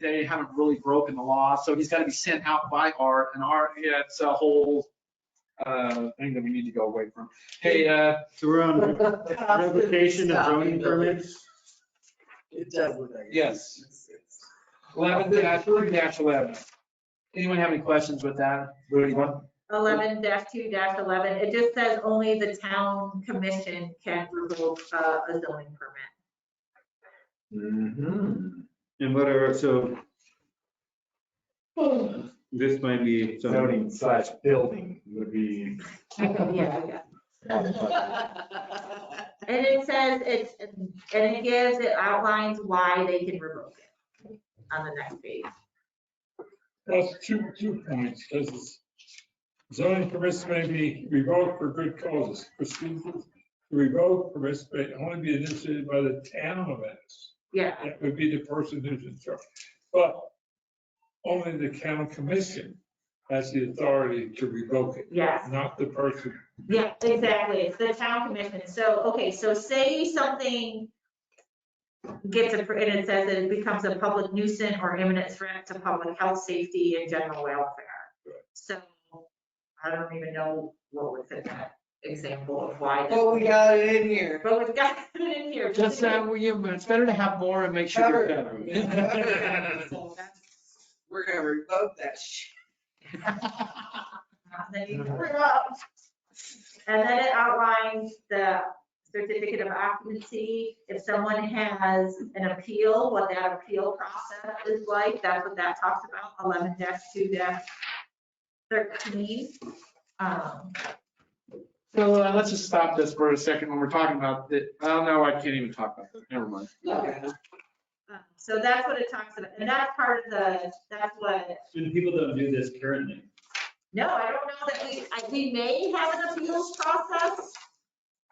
they haven't really broken the law, so he's gotta be sent out by Art, and Art, yeah, it's a whole, uh, thing that we need to go away from. Hey, uh, So we're on revocation of zoning permits. It does look like. it. Yes. eleven dash, three dash eleven. Anyone have any questions with that? Rudy, what? Eleven two eleven, it just says only the town commission can revoke uh, a zoning permit. And whatever, so this might be zoning. slash building would be. Oh, Yeah, yeah. And it says it's, and it gives, it outlines why they can revoke it on the next page. Well, two, two points, because zoning permits may be revoked for good causes. Proceedings to revoke permits may only be initiated by the town of Ennis. Yeah, That would be the person who's in charge. But only the county commission has the authority to revoke it, yes. not the person. Yeah, exactly. It's the town commission. So, okay, so say something gets, appro- and it says that it becomes a public nuisance or imminent threat to public health, safety, and general welfare. So I don't even know what was in that example of why. this- But we got it in here. But we've got it in here. Just, uh, well, you- it's better to have more and make sure you're covered. So that's- We're gonna revoke that shit. Then you pull it up. And then it outlines the certificate of occupancy. If someone has an appeal, what that appeal process is like, that's what that talks about, eleven two thirteen. Um, So uh, let's just stop this for a second when we're talking about it. Oh, no, I can't even talk about it. Never mind. uh, So that's what it talks about, and that's part of the, that's what, And people don't do this currently. no, I don't know that we, I- we may have an appeals process.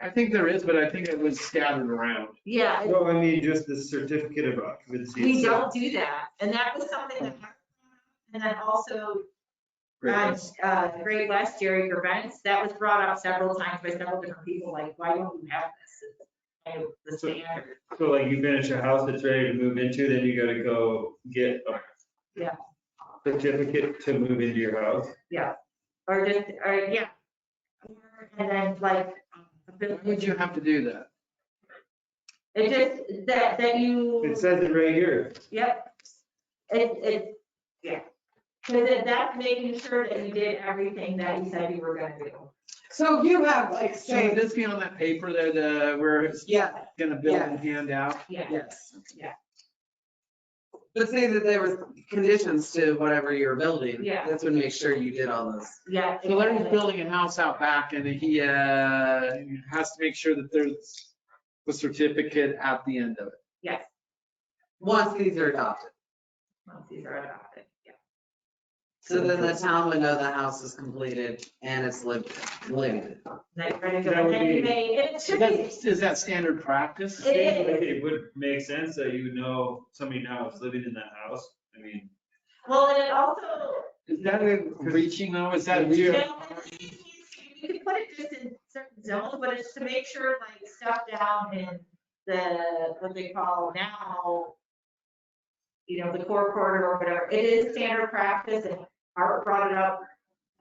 I think there is, but I think it was scattered around. Yeah, No, I mean, just the certificate of occupancy. We uh, itself. don't do that, and that was something that, and then also, Great. uh, uh, Great West, Jerry Gervais, that was brought up several times by several different people, like, why don't we have this? And the standard, So like you finish a house that's ready to move into, then you gotta go get a. Yeah. Certificate to move into your house. or just, or, yeah. And then like, um, Why would you have to do that? it just, that, that you. It says it right here. Yep. It, it, yeah. Because that's making sure that you did everything that you said you were gonna do. So you have like, So would say, this be on that paper there, the, where it's yeah, gonna build and hand out? Yeah, yes. Yeah. But say that there were conditions to whatever you're building. Yeah. That's when make sure you did all those. yeah. So Larry's exactly. building a house out back and he, uh, has to make sure that there's the certificate at the end of it. Yes. Once these are adopted. Once these are adopted, yeah. So then the town would know the house is completed and it's lived, lived. Then you're ready to That go, would then be- you may, and it should be, That's- Is that standard practice? It is. It would make sense that you would know somebody now is living in that house. I mean, well, and it also, Is that a reaching though? Is that? you know, you can put it just in certain zones, but it's to make sure like stuff down in the, what they call now, you know, the core corridor or whatever, it is standard practice and Art brought it up.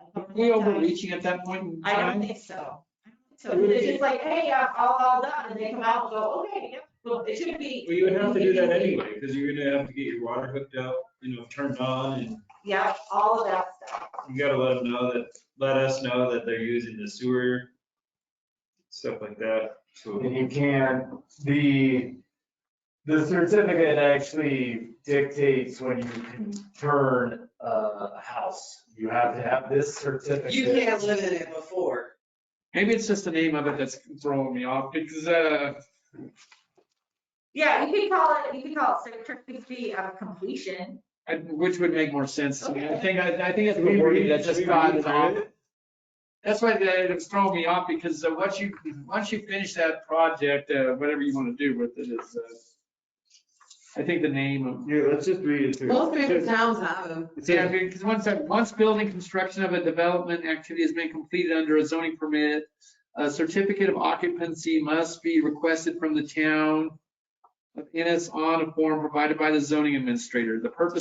a Are couple we times. overreaching at that point in I don't time? think so. So it's just like, hey, I'm all, all done, and they come out and go, okay, yeah, well, it should be. well, you would have to do that anyway, because you're gonna have to get your water hooked up, you know, turned on and Yeah, all of that stuff. you gotta let them know that, let us know that they're using the sewer. Stuff like that, so. And you can, the, the certificate actually dictates when you can turn a- a house. You have to have this certificate. You can't live in it before. Maybe it's just the name of it that's throwing me off because, uh, Yeah, you can call it, you can call it certificate of uh, completion. I- which would make more sense to me. I think, I I think it's Should the we word read- that should just we got read it through off. it? That's why that it's throwing me off because uh, once you, once you finish that project, uh, whatever you want to do with it is, uh, I think the name of. Here, let's just read it through. Most big towns have them. Yeah, because once, that- once building construction of a development activity has been completed under a zoning permit, a certificate of occupancy must be requested from the town of Ennis on a form provided by the zoning administrator. The purpose